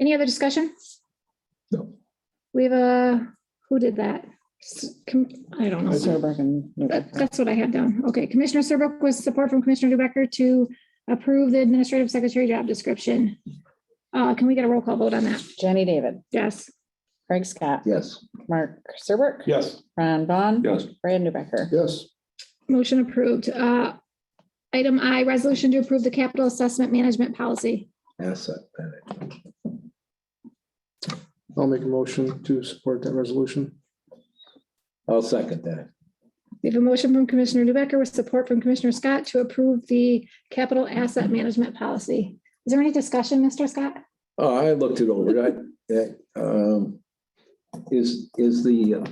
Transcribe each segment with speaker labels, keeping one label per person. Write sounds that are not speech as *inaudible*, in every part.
Speaker 1: Any other discussion?
Speaker 2: No.
Speaker 1: We have a, who did that? S- com- I don't know.
Speaker 3: Serbrook and
Speaker 1: That- That's what I had down. Okay, Commissioner Serbrook with support from Commissioner Newbecker to approve the administrative secretary job description. Uh, can we get a roll call vote on that?
Speaker 3: Jenny David,
Speaker 1: Yes.
Speaker 3: Craig Scott,
Speaker 2: Yes.
Speaker 3: Mark Serbrook.
Speaker 2: Yes.
Speaker 3: Ron Vaughn.
Speaker 2: Yes.
Speaker 3: Brad Newbecker.
Speaker 2: Yes.
Speaker 1: Motion approved. Uh, Item I, resolution to approve the capital assessment management policy.
Speaker 2: Asset management.
Speaker 4: I'll make a motion to support that resolution.
Speaker 2: I'll second that.
Speaker 1: We have a motion from Commissioner Newbecker with support from Commissioner Scott to approve the capital asset management policy. Is there any discussion, Mr. Scott?
Speaker 2: Oh, I looked it over. I, that, um, is, is the, uh,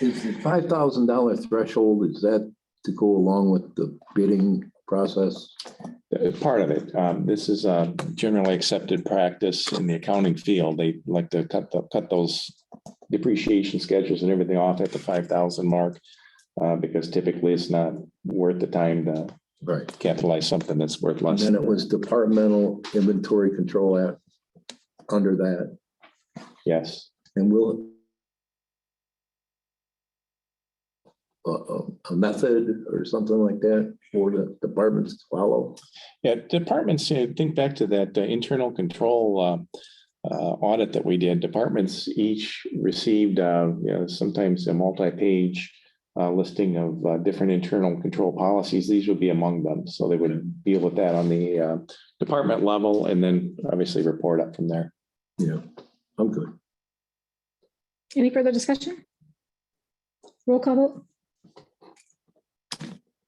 Speaker 2: is the five thousand dollar threshold, is that to go along with the bidding process?
Speaker 5: uh, part of it. Um, This is uh, generally accepted practice in the accounting field. They like to cut, the- cut those depreciation schedules and everything off at the five thousand mark uh, because typically it's not worth the time to
Speaker 2: Right.
Speaker 5: capitalize something that's worth less.
Speaker 2: Then it was departmental inventory control act under that,
Speaker 5: Yes.
Speaker 2: and will a, a method or something like that for the departments to follow?
Speaker 5: Yeah, departments, you know, think back to that uh, internal control uh, uh, audit that we did. Departments each received, uh, you know, sometimes a multi-page uh, listing of uh, different internal control policies. These would be among them. So they would deal with that on the uh, department level and then obviously report up from there.
Speaker 2: Yeah, I'm good.
Speaker 1: Any further discussion? Roll call vote?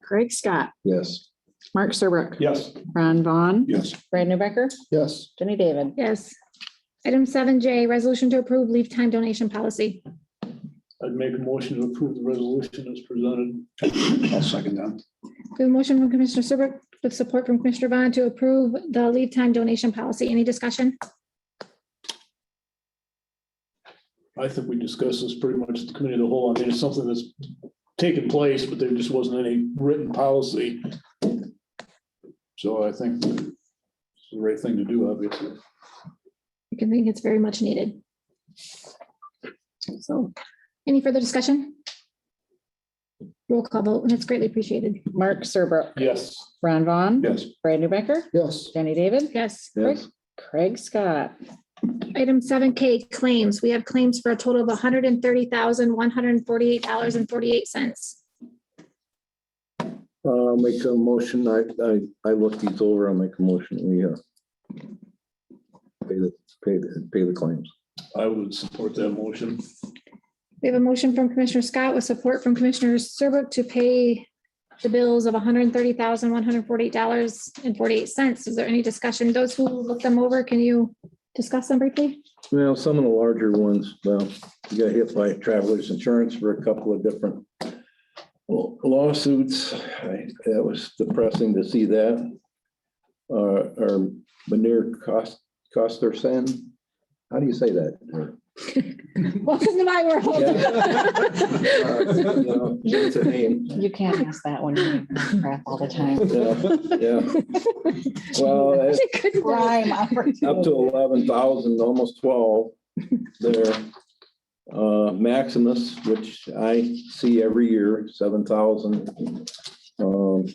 Speaker 3: Craig Scott,
Speaker 2: Yes.
Speaker 3: Mark Serbrook.
Speaker 4: Yes.
Speaker 3: Ron Vaughn.
Speaker 2: Yes.
Speaker 3: Brad Newbecker.
Speaker 4: Yes.
Speaker 3: Jenny David.
Speaker 1: Yes. Item seven J, resolution to approve leave time donation policy.
Speaker 6: I'd make a motion to approve the resolution as presented.
Speaker 4: I'll second that.
Speaker 1: We have a motion from Commissioner Serbrook with support from Commissioner Vaughn to approve the leave time donation policy. Any discussion?
Speaker 6: I think we discussed this pretty much at the committee of the whole. I mean, it's something that's taken place, but there just wasn't any written policy. So I think it's the right thing to do, obviously.
Speaker 1: You can think it's very much needed. So, any further discussion? Roll call vote, and it's greatly appreciated.
Speaker 3: Mark Serbrook.
Speaker 6: Yes.
Speaker 3: Ron Vaughn.
Speaker 2: Yes.
Speaker 3: Brad Newbecker.
Speaker 4: Yes.
Speaker 3: Jenny David.
Speaker 1: Yes.
Speaker 2: Yes.
Speaker 3: Craig *laughs* Scott.
Speaker 1: Item seven K, claims. We have claims for a total of hundred and thirty thousand, one hundred and forty-eight dollars and forty-eight cents.
Speaker 2: Uh, I'll make a motion. I, I, I looked these over. I'll make a motion. We, uh, pay the, pay the, pay the claims.
Speaker 6: I would support that motion. *laughs*
Speaker 1: We have a motion from Commissioner Scott with support from Commissioner Serbrook to pay the bills of hundred and thirty thousand, one hundred and forty-eight dollars and forty-eight cents. Is there any discussion? Those who looked them over, can you discuss them briefly?
Speaker 2: Well, some of the larger ones, well, you got hit by travelers insurance for a couple of different lawsuits. I- That was depressing to see that. Uh, Or Manir Cost, Coster Sen. How do you say that? Uh,
Speaker 1: Welcome to my world.
Speaker 2: Uh, you know, It's a name.
Speaker 3: *laughs* You can't ask that one. You crap all the
Speaker 6: *laughs*
Speaker 3: time.
Speaker 2: Yeah, yeah. Well, it's
Speaker 1: Good one.
Speaker 3: Prime
Speaker 2: up to
Speaker 3: opportunity.
Speaker 2: eleven thousand, almost twelve there. Uh, Maximus, which I see every year, seven thousand. Um.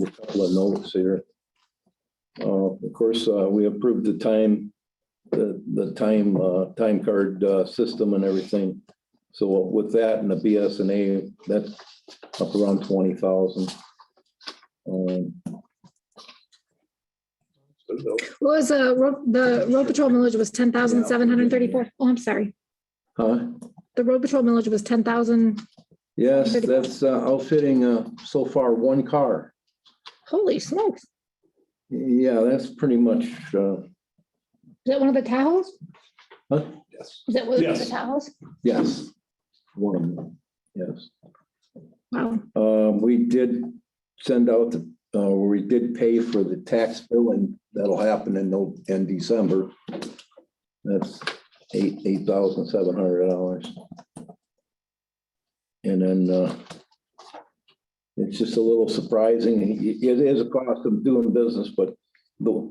Speaker 2: A couple of notes here. Uh, of course, uh, we approved the time, the, the time, uh, time card, uh, system and everything. So with that and the BSNA, that's up around twenty thousand. Um,
Speaker 1: What was uh, ro- the road patrol millage was ten thousand seven hundred and thirty-four? Oh, I'm sorry.
Speaker 2: huh?
Speaker 1: The road patrol millage was ten thousand.
Speaker 2: Yes,
Speaker 1: Good.
Speaker 2: that's uh, outfitting uh, so far one car.
Speaker 1: Holy smokes. Is
Speaker 2: Yeah, that's pretty much, uh,
Speaker 1: that one of the Tahoes?
Speaker 2: huh?
Speaker 1: Is that one of the
Speaker 6: Yes.
Speaker 1: Tahoes?
Speaker 2: yes, one of them, yes.
Speaker 1: Wow.
Speaker 2: Uh, We did send out, the uh, we did pay for the tax bill and that'll happen in, No- in December. That's eight, eight thousand seven hundred dollars. And then uh, it's just a little surprising. It it is a cost of doing business, but the,